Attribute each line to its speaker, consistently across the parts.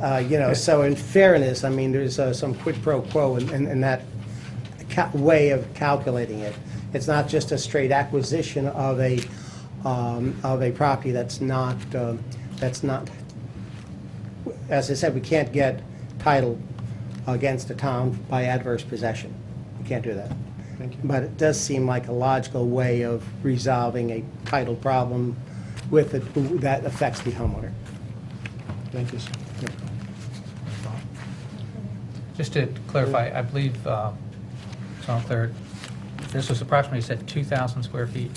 Speaker 1: Uh, You know, so in fairness, I mean, there's uh, some quid pro quo in- in in that ca- way of calculating it. It's not just a straight acquisition of a, um, of a property that's not, um, that's not, as I said, we can't get title against a town by adverse possession. We can't do that.
Speaker 2: Thank you.
Speaker 1: But it does seem like a logical way of resolving a title problem with, it that affects the homeowner.
Speaker 2: Thank you, sir.
Speaker 3: Just to clarify, I believe, uh, so I'm clear, this was approximately, you said 2,000 square feet.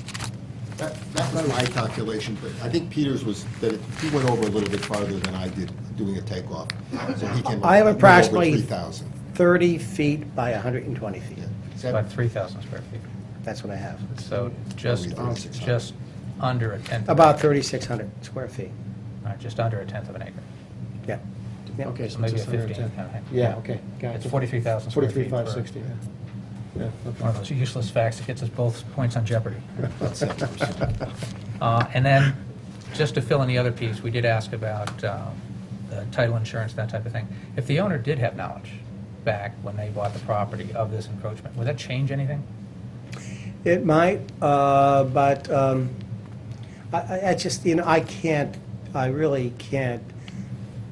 Speaker 4: That, that was my calculation, but I think Peters was, that it- he went over a little bit farther than I did, doing a takeoff. So he came up
Speaker 1: I have
Speaker 4: went
Speaker 1: approximately-
Speaker 4: Over three thousand.
Speaker 1: 30 feet by 120 feet.
Speaker 3: About 3,000 square feet.
Speaker 1: That's what I have.
Speaker 3: So just,
Speaker 4: Thirty-six hundred.
Speaker 3: just under a tenth. of an
Speaker 1: About
Speaker 3: acre.
Speaker 1: 3,600 square feet.
Speaker 3: All right, Just under a tenth of an acre.
Speaker 1: Yeah. Yeah.
Speaker 2: Okay,
Speaker 3: So
Speaker 2: so
Speaker 3: maybe
Speaker 2: just
Speaker 3: a
Speaker 2: under
Speaker 3: 15,
Speaker 2: 10.
Speaker 3: okay.
Speaker 2: Yeah, okay, gotcha.
Speaker 3: It's 43,000 square feet
Speaker 2: 43,560, yeah. Yeah, okay.
Speaker 3: One of those useless facts that gets us both points on jeopardy. Uh, And then, just to fill in the other piece, we did ask about uh, the title insurance, that type of thing. If the owner did have knowledge back when they bought the property of this encroachment, would that change anything?
Speaker 1: It might, uh, but um, I- I I just, you know, I can't, I really can't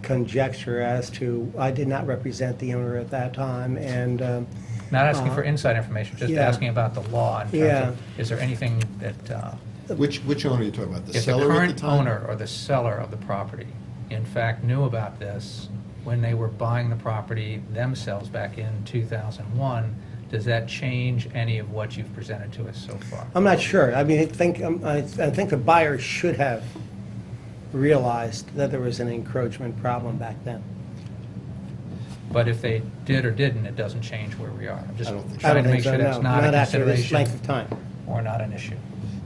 Speaker 1: conjecture as to, I did not represent the owner at that time, and um,
Speaker 3: Not asking for
Speaker 1: Uh-huh.
Speaker 3: inside information, just
Speaker 1: Yeah.
Speaker 3: asking about the law in terms of,
Speaker 1: Yeah.
Speaker 3: is there anything that, uh,
Speaker 4: Which, which owner are you talking about? The
Speaker 3: if the
Speaker 4: seller at the
Speaker 3: current
Speaker 4: time?
Speaker 3: owner or the seller of the property, in fact, knew about this when they were buying the property themselves back in 2001, does that change any of what you've presented to us so far?
Speaker 1: I'm not sure. I mean, I think, um, I I think the buyer should have realized that there was an encroachment problem back then.
Speaker 3: But if they did or didn't, it doesn't change where we are. I'm just
Speaker 4: I don't think
Speaker 1: I
Speaker 3: trying
Speaker 1: don't
Speaker 3: to
Speaker 1: think
Speaker 3: make
Speaker 1: so,
Speaker 3: sure that's
Speaker 1: no.
Speaker 3: not a
Speaker 1: after this length of time.
Speaker 3: consideration or not an issue.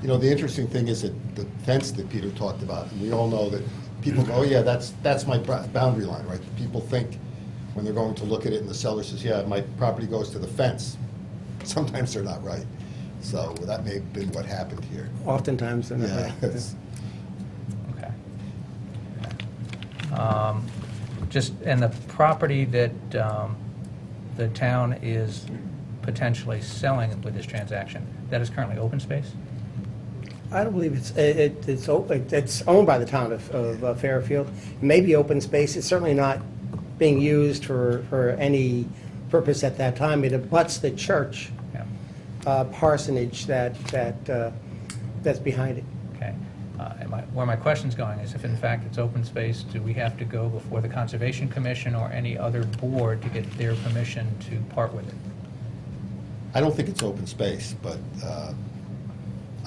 Speaker 4: You know, the interesting thing is that the fence that Peter talked about, and we all know that people go, oh yeah, that's, that's my bro- boundary line, right? People think when they're going to look at it and the seller says, yeah, my property goes to the fence. Sometimes they're not right. So that may have been what happened here.
Speaker 1: Oftentimes, they're not
Speaker 4: Yeah,
Speaker 1: right.
Speaker 4: it's-
Speaker 3: Okay. Um, Just, and the property that um, the town is potentially selling with this transaction, that is currently open space?
Speaker 1: I don't believe it's, it- it- it's, o- it- it's owned by the town of- of uh, Fairfield. It may be open space, it's certainly not being used for, for any purpose at that time. It abuts the church
Speaker 3: Yeah,
Speaker 1: uh, parsonage that, that, uh, that's behind it.
Speaker 3: okay. Uh, and my- Where my question's going is if in fact it's open space, do we have to go before the Conservation Commission or any other board to get their permission to part with it?
Speaker 4: I don't think it's open space, but uh,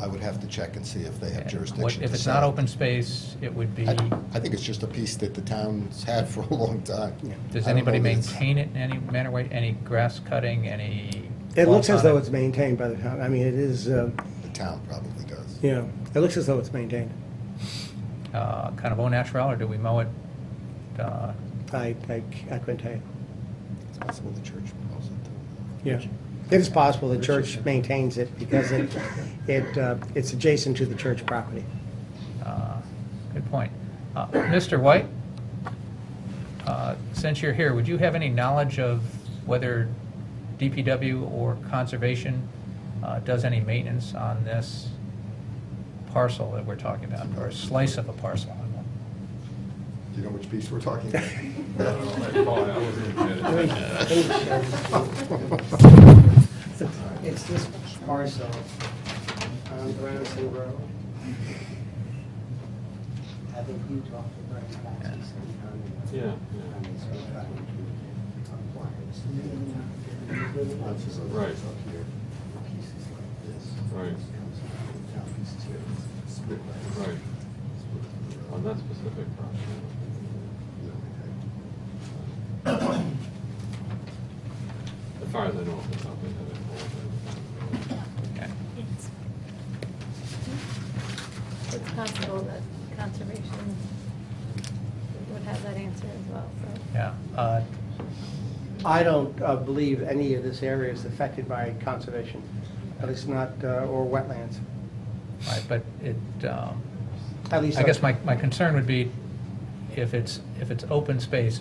Speaker 4: I would have to check and see if they have
Speaker 3: And what-
Speaker 4: jurisdiction.
Speaker 3: If
Speaker 4: to
Speaker 3: it's
Speaker 4: sell
Speaker 3: not
Speaker 4: it.
Speaker 3: open space, it would be,
Speaker 4: I I think it's just a piece that the town's had for a long time.
Speaker 3: does
Speaker 4: I don't
Speaker 3: anybody
Speaker 4: know that it's-
Speaker 3: maintain it in any manner, way? any grass cutting, any?
Speaker 1: It looks
Speaker 3: walls
Speaker 1: as
Speaker 3: on
Speaker 1: though it's maintained by the town, I mean, it is, uh,
Speaker 4: The town probably does.
Speaker 1: you know, it looks as though it's maintained.
Speaker 3: uh, Kind of au naturel, or do we mow it? uh,
Speaker 1: I, I I couldn't tell you.
Speaker 4: It's possible the church owns it.
Speaker 1: Yeah. It is possible the church maintains it because it, it, uh, it's adjacent to the church property.
Speaker 3: uh, Good point. Uh, Mr. White, uh, since you're here, would you have any knowledge of whether DPW or Conservation uh, does any maintenance on this parcel that we're talking about, or a slice of a parcel?
Speaker 4: Do you know which piece we're talking about?
Speaker 1: It's this parcel on Branson Road. I think you talked to Brian Baxter on
Speaker 5: Yeah. Right. Right. Right. On that specific property. As far as I know, it's something that
Speaker 3: Okay.
Speaker 6: It's it's possible that conservation would have that answer as well, so.
Speaker 3: Yeah. Uh,
Speaker 1: I don't uh, believe any of this area is affected by conservation, at least not, uh, or wetlands,
Speaker 3: all right, But it, um,
Speaker 1: at least.
Speaker 3: I guess my my concern would be if it's, if it's open space,